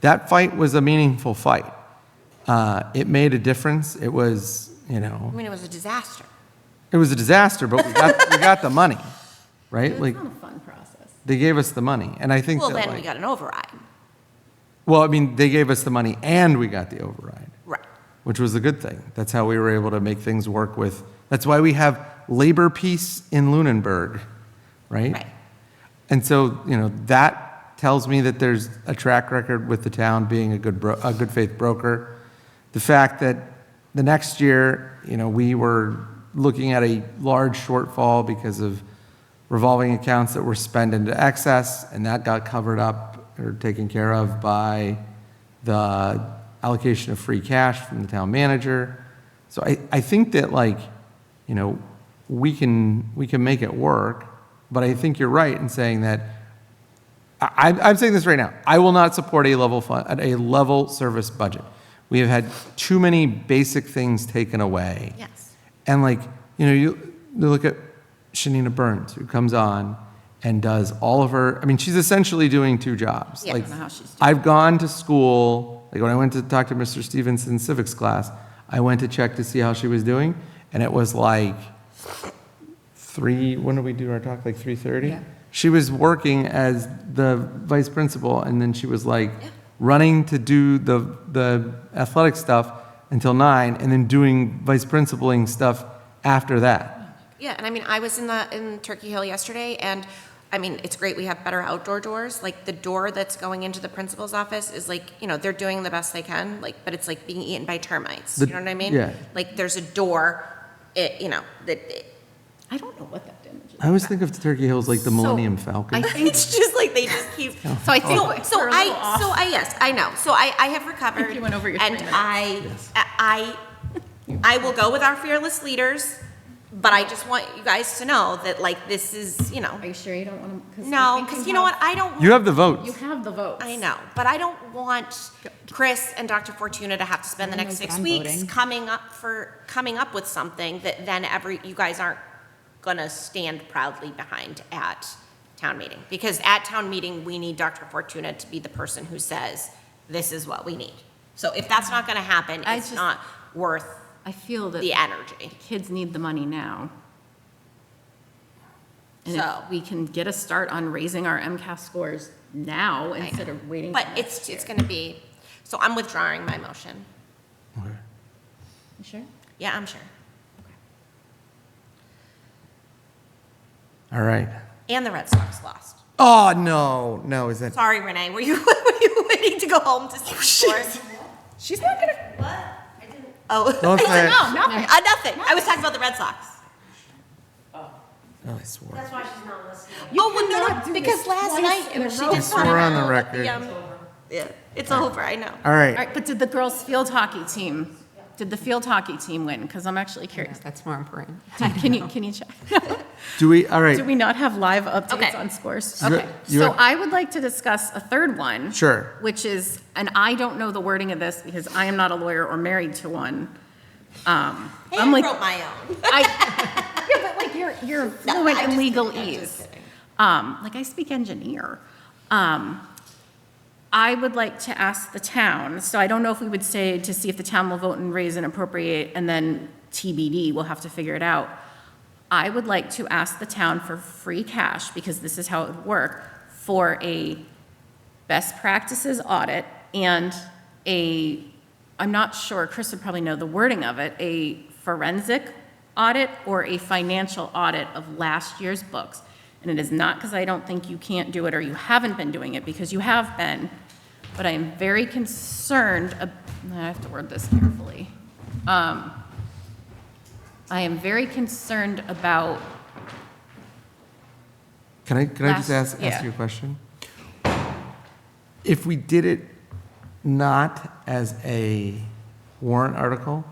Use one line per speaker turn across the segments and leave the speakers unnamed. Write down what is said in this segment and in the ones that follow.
that fight was a meaningful fight. Uh, It made a difference. It was, you know,
I mean, it was a disaster.
it was a disaster, but we got, we got the money, right? Like,
It's not a fun process.
they gave us the money, and I think
Well,
that
then we
like,
got an override.
well, I mean, they gave us the money and we got the override.
Right.
which was a good thing. That's how we were able to make things work with, that's why we have labor peace in Lunenburg, right?
Right.
And so, you know, that tells me that there's a track record with the town being a good, bro- a good faith broker. The fact that the next year, you know, we were looking at a large shortfall because of revolving accounts that were spent into excess, and that got covered up or taken care of by the allocation of free cash from the town manager. So I, I think that like, you know, we can, we can make it work, but I think you're right in saying that, I, I'm- I'm saying this right now, I will not support a level fund, a level service budget. We have had too many basic things taken away.
Yes.
And like, you know, you, you look at Shanina Burns, who comes on and does all of her, I mean, she's essentially doing two jobs.
Yeah, I
Like,
don't know how she's doing
I've gone to school, like when I went to talk to Mr. Stevenson's civics class, I went to check to see how she was doing, and it was like three, when did we do our talk, like 3:30?
Yeah.
She was working as the vice principal, and then she was like running to do the, the athletic stuff until nine, and then doing vice principaling stuff after that.
Yeah, and I mean, I was in the, in Turkey Hill yesterday, and, I mean, it's great we have better outdoor doors, like, the door that's going into the principal's office is like, you know, they're doing the best they can, like, but it's like being eaten by termites, you
The-
know what I mean?
yeah.
Like, there's a door, it, you know, that, it-
I don't know what that damage
Uh,
is.
I always think of Turkey Hill as like the Millennium Falcon.
it's just like they just keep.
So I think
So, so
we're a little
I,
off.
so I, yes, I know. So I, I have recovered.
you went over your
And
three minutes.
I, I, I will go with our fearless leaders, but I just want you guys to know that like this is, you know,
Are you sure you don't want to?
no, because you know what, I don't.
You have the
You
votes.
have the votes.
I know, but I don't want Chris and Dr. Fortuna to have to spend the
I know
next six
Oh I'm
weeks
voting.
coming up for, coming up with something that then every, you guys aren't gonna stand proudly behind at town meeting. Because at town meeting, we need Dr. Fortuna to be the person who says, this is what we need. So if that's not gonna happen,
I
it's
just-
not worth
I feel that
the energy.
kids need the money now. And
So-
if we can get a start on raising our MCAS scores now
know.
instead of waiting.
But
till
it's,
next
it's
year.
gonna be, so I'm withdrawing my motion.
You Sure.
Yeah, I'm sure.
All right.
And the Red Sox lost.
Oh, no, no, is that,
Sorry, Renee, were you, were you waiting to go home to see the score? She's not gonna. What? Oh.
Don't
I
say
said,
it.
No, nothing, uh, nothing. I was talking about the Red Sox.
oh, I swore.
That's why she's not listening. Oh, well,
cannot
no,
do
no,
this
because last
twice
night,
in a
she
row.
just.
We're
wanted
on
to-
the record.
Yeah, Yeah, it's over, I know.
All
All
right,
right, but did the girls' field hockey team, did the field hockey team win? Because I'm actually curious.
That's more important.
Can you, can you check?
do we, all
Do
right,
we not have live updates
Okay.
on scores?
You-
Okay,
you-
so I would like to discuss a third one.
Sure.
Which is, and I don't know the wording of this because I am not a lawyer or married to one. Um,
Hey,
I'm
I
like,
wrote my own.
I, yeah, but like you're, you're fluent in legal ease. Um, like I speak engineer. Um, I would like to ask the town, so I don't know if we would say to see if the town will vote and raise and appropriate and then TBD, we'll have to figure it out. I would like to ask the town for free cash, because this is how it would work, for a best practices audit and a, I'm not sure, Chris would probably know the wording of it, a forensic audit or a financial audit of last year's books. And it is not because I don't think you can't do it or you haven't been doing it, because you have been. But I am very concerned, ab- I have to word this carefully. Um, I am very concerned about
can I, can I just
Last-
ask,
yeah.
ask you a question? If we did it not as a warrant article,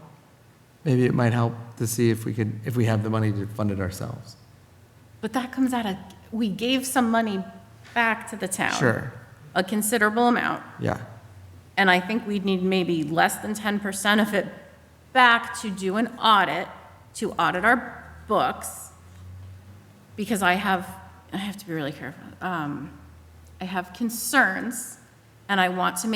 maybe it might help to see if we could, if we have the money to fund it ourselves.
But that comes out of, we gave some money back to the town.
Sure.
A considerable amount,
Yeah,
and I think we'd need maybe less than ten percent of it back to do an audit, to audit our books, because I have, I have to be really careful. Um, I have concerns, and I want to make